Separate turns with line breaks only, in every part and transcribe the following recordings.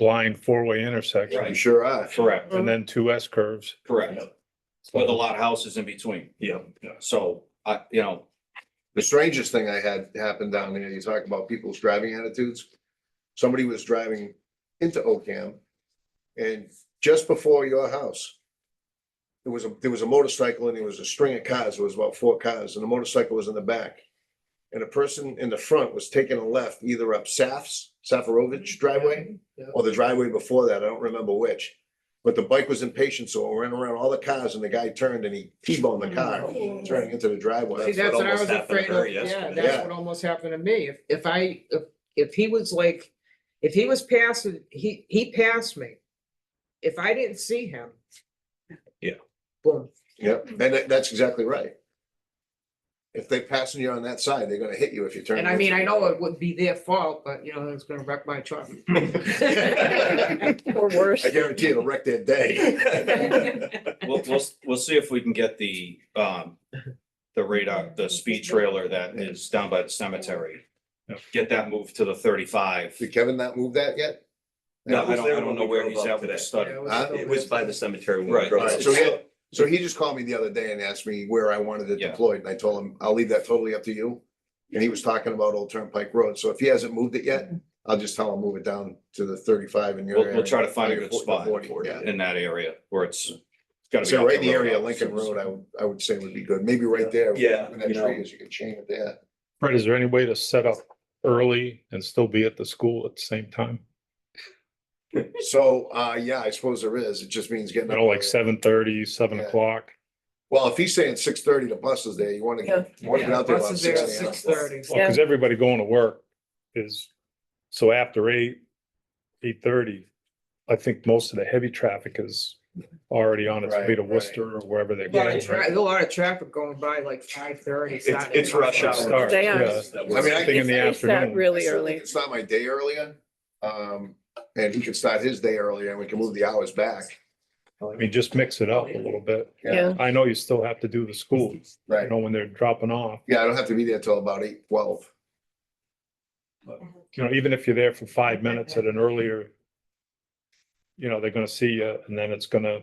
blind four-way intersection
Right.
You sure are.
Correct,
and then two S curves.
correct. With a lot of houses in between.
Yeah.
So, I, you know,
The strangest thing I had happen down there, you talk about people's driving attitudes. Somebody was driving into Ocam and just before your house. There was a, there was a motorcycle and there was a string of cars. There was about four cars and the motorcycle was in the back. And a person in the front was taking a left either up Saf's, Safarovich driveway or the driveway before that. I don't remember which. But the bike was impatient, so it ran around all the cars and the guy turned and he T-boned the car, turning into the driveway.
Mm-hmm. See, that's what I
almost
was
happened to
afraid
her
of, yeah,
yesterday.
that's
Yeah.
what almost happened to me, if, if I, if, if he was like, if he was passing, he, he passed me. If I didn't see him.
Yeah.
Boom,
Yep, and that, that's exactly right. If they passing you on that side, they're gonna hit you if you turn.
and I mean, I
into-
know it wouldn't be their fault, but you know, it's gonna wreck my truck.
Or worse.
I guarantee it'll wreck their day.
we'll, we'll, we'll see if we can get the, um, the radar, the speed trailer that is down by the cemetery. Get that moved to the thirty-five.
Did Kevin not move that yet?
No, I
was
don't,
there
I don't
when
know
we
where
drove
he's
up
at with the
today.
study.
Yeah, it was
Huh?
still
It was
there.
by the cemetery. when we
Right.
drove
Alright,
up.
so he, so he just called me the other day and asked me where I wanted it
Yeah.
deployed, and I told him, I'll leave that totally up to you. And he was talking about Old Turnpike Road, so if he hasn't moved it yet, I'll just tell him, move it down to the thirty-five in your
We'll,
area.
we'll try to find a
Or your
good
fo-
spot
forty, yeah.
in that area where it's. it's gotta be
So
up
right in the
road,
area,
obviously.
Lincoln Road, I would, I would say would be good, maybe right there.
Yeah,
When that
you know.
tree is, you can chain it there.
Fred, is there any way to set up early and still be at the school at the same time?
So, uh, yeah, I suppose there is. It just means
You
getting.
know,
up
like
early.
seven thirty, seven
Yeah.
o'clock?
Well, if he's saying six thirty, the bus is there. You wanna,
Yeah.
you wanna get out there about
Buses there at
six AM.
six thirty.
Well, cause everybody going to work is, so after eight, eight thirty, I think most of the heavy traffic is already on its way
Right,
to
right.
Worcester or wherever they're
Yeah,
going,
there's
right?
a lot of traffic going by like five thirty.
It's, it's rush hour.
Start,
They are.
yeah.
That
I mean, I
Something in the
It's that
afternoon.
Really early.
It's not my day earlier. Um, and he could start his day earlier and we can move the hours back.
I mean, just mix it up a little bit.
Yeah.
I know you still have to do the school, you
Right.
know, when they're dropping off.
Yeah, I don't have to be there till about eight twelve.
you know, even if you're there for five minutes at an earlier, you know, they're gonna see you and then it's gonna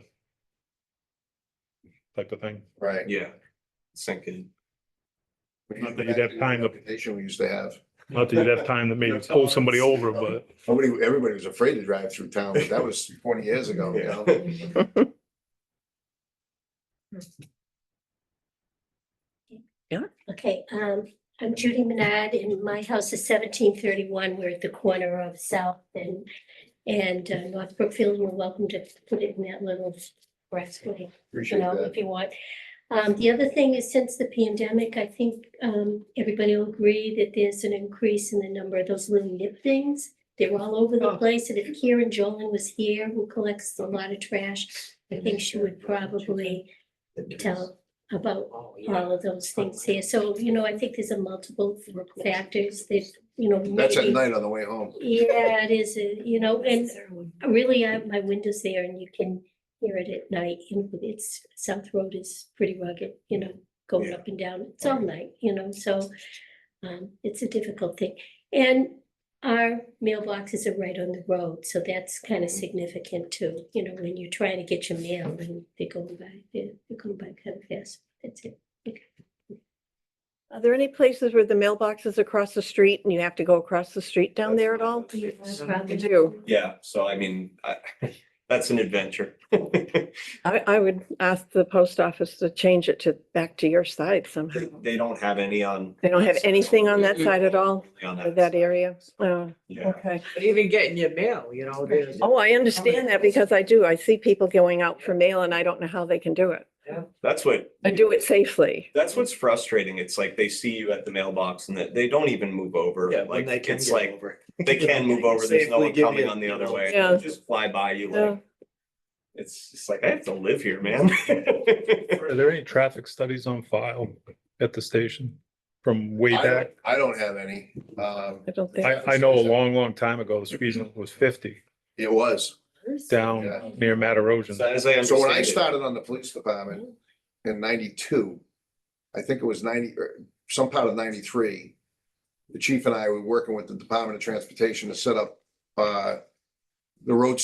type of thing.
Right.
Yeah. Sinking.
Not that you'd have time to-
Nation we used to have.
Not that you'd have time to maybe pull somebody over, but
Nobody, everybody was afraid to drive through town, but that was twenty years ago, you know?
Okay, um, I'm Judy Manad and my house is seventeen thirty-one. We're at the corner of South and, and uh, North Brookfield. You're welcome to put it in that little expressway, you
Appreciate
know,
that.
if you want. Um, the other thing is since the pandemic, I think, um, everybody will agree that there's an increase in the number of those little nip things. They're all over the
Oh.
place. And if Karen Jolin was here, who collects a lot of trash, I think she would probably tell about
Oh, yeah.
all of those things here. So, you know, I think there's a multiple factors that, you know,
That's at
maybe.
night on the way home.
Yeah, it is, uh, you know, and really, I, my window's there and you can hear it at night. And it's, South Road is pretty rugged, you know, going
Yeah.
up and down. It's all night, you know, so um, it's a difficult thing. And our mailboxes are right on the road, so that's kind of
Mm-hmm.
significant too. You know, when you're trying to get your mail and they're going by, they're they're going by kind of fast. That's it.
Are there any places where the mailbox is across the street and you have to go across the street down there at all?
Probably.
do.
Yeah, so I mean, I, that's an adventure.
I, I would ask the post office to change it to back to your side somehow.
They they don't have any on.
They don't have anything on that side at all,
On
or
that.
that area? Oh,
Yeah.
okay.
But Even getting your mail, you know, there's.
Oh, I understand that because I do. I see people going out for mail and I don't know how they can do it.
That's what,
I do it safely.
that's what's frustrating. It's like they see you at the mailbox and that they don't even move over. Like, it's like, they can move over. There's no one coming on the other way. They
Yeah.
Just fly by you
Yeah.
like. It's just like, I have to live here, man.
are there any traffic studies on file at the station from way
I don't,
back?
I don't have any. Um,
I don't think.
I, I know a long, long time ago, the speed limit was fifty
it was. Yeah.
down near Matarosion.
So as I
So when I
understand it-
started on the police department in ninety-two, I think it was ninety, or some part of ninety-three, the chief and I were working with the Department of Transportation to set up, uh, the road